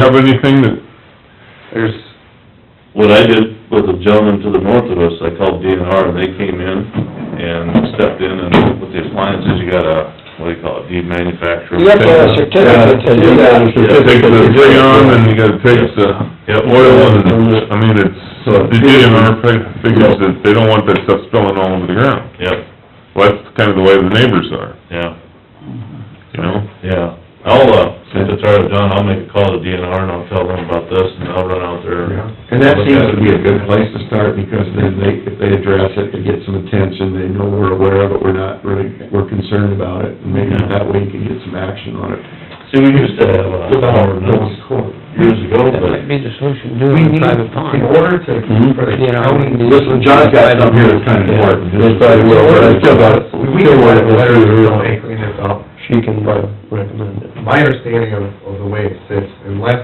have anything that, there's, What I did with the gentleman to the north of us, I called DNR, and they came in and stepped in and with the appliances, you got a, what do you call it, demanufacturer. You have to have a certificate to do that. you take the freon and you gotta take the oil and, I mean, it's, the DNR fi- figures that they don't want that stuff spilling all over the ground. Yep, Well, that's kind of the way the neighbors are, yeah, you know? yeah. I'll, uh, since it's already done, I'll make a call to DNR and I'll tell them about this and I'll run out there. And that seems to be a good place to start, because then they, if they address it, it gets some attention, they know we're aware of it, we're not really, we're concerned about it, and maybe that way you can get some action on it. See, we used to have an Without ordinance going to court. years ago, That but might be the solution, do it in a private pond. In order to, Mhm. for the You know, county... the- Listen, John's got something here that's kinda important. It's like, well, it's still about- We can write a letter to the bank, clean this up. She can recommend it. My understanding of, of the way it sits, unless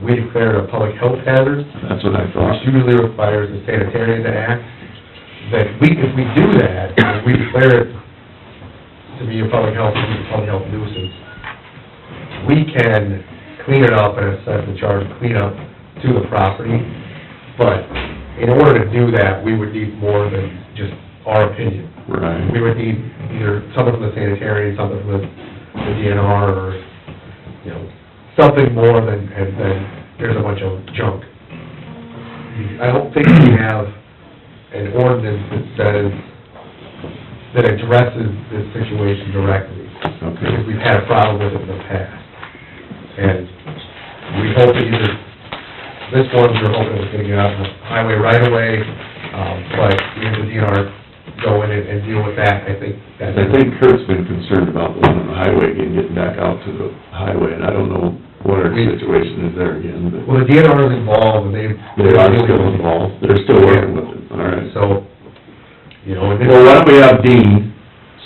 we declare a public health hazard, That's what I which usually requires the sanitarian to act, that we, if we do that, if we declare it to be a public health, to be a public health nuisance, we can clean it up and assess the charge of cleanup to the property, but in order to do that, we would need more than just our opinion. Right. We would need either something from the sanitarian, something from the the DNR, or, you know, something more than, and then there's a bunch of junk. I don't think we have an ordinance that says, that addresses this situation directly, because we've had a problem with it in the past. And we hope that either, this one, we're hoping it's gonna get out of the highway right away, um, but we have the DNR go in and and deal with that, I think that's... I think Kurt's been concerned about the one on the highway again, getting back out to the highway, and I don't know what our situation is there again, but Well, the DNR is involved, and they... they are still involved, they're still working with it, all right. So, you know, and... Well, why don't we have Dean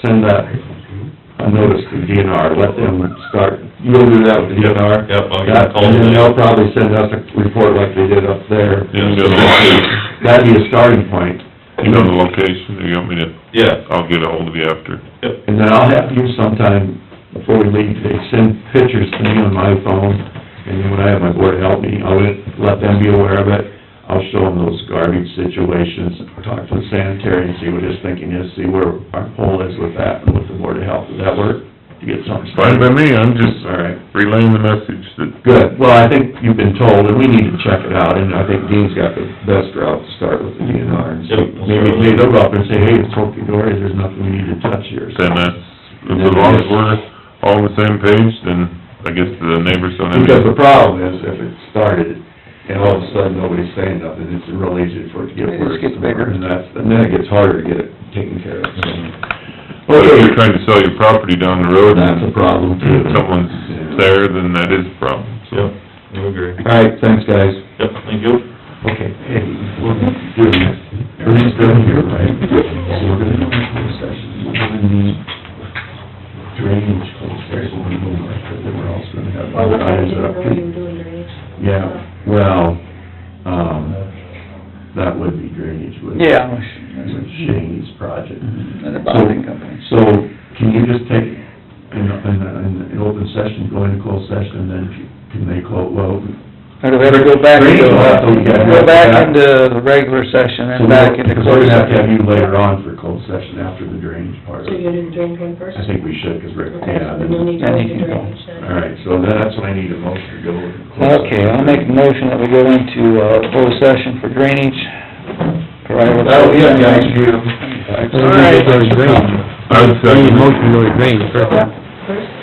send that, a notice to DNR, let them start, you'll do that with the DNR? Yep, I'll get a call And then today. they'll probably send us a report like they did up there. You know the location, That'd be a starting point, you know the location, you want me to, Yeah, I'll get ahold of you after. and then I'll have you sometime before we leave, they send pictures to me on my phone, and then when I have my board help me, I'll let them be aware of it. I'll show them those garbage situations, talk to the sanitary and see what his thinking is, see where our poll is with that, and with the board of health. Does that work? To get something Fine by started? me, I'm just All right, relaying the message that, good. Well, I think you've been told, and we need to check it out, and I think Dean's got the best route to start with the DNR. and see. Yep. Maybe maybe they'll go up and say, hey, it's Dory, there's nothing we need to touch here. So then that's, as long as we're all on the same page, then I guess the neighbors don't have Because any... the problem is, if it started, and all of a sudden nobody's saying nothing, it's real easy for it to get It just worse. gets bigger. And that's, and then it gets harder to get it taken care of, so. But if Okay, you're trying to sell your property down the road that's a and problem too. someone's there, then that is a problem, yep, so. I agree. All right, thanks, guys. Yep, thank you. Okay, hey, we'll do it next. Everything's done here, right? So we're gonna do a closed session, we're gonna need drainage closed session, we're gonna go back, but then we're also gonna have. Well, I items didn't up know here. you were doing drainage. Yeah, well, um, that would be drainage, would Yeah. Shane's project. Mm-hmm. And the bonding company. So, can you just take, in, in, in an open session, go into closed session, and then can they close, well, Or do we have to go back into, uh, Great. go back into the regular session so and back into because we're closed gonna have to have session? you later on for closed session after the drainage part. So you're gonna do drainage one first? I think we should, because Rick, Okay, yeah, so then then, you'll need to Then go you to can go. drainage then. all right, so then that's when I need a motion to go. to closed Okay, session. I'll make a motion that we go into, uh, closed session for drainage. That'll be it, guys. All right. I'd second it. First,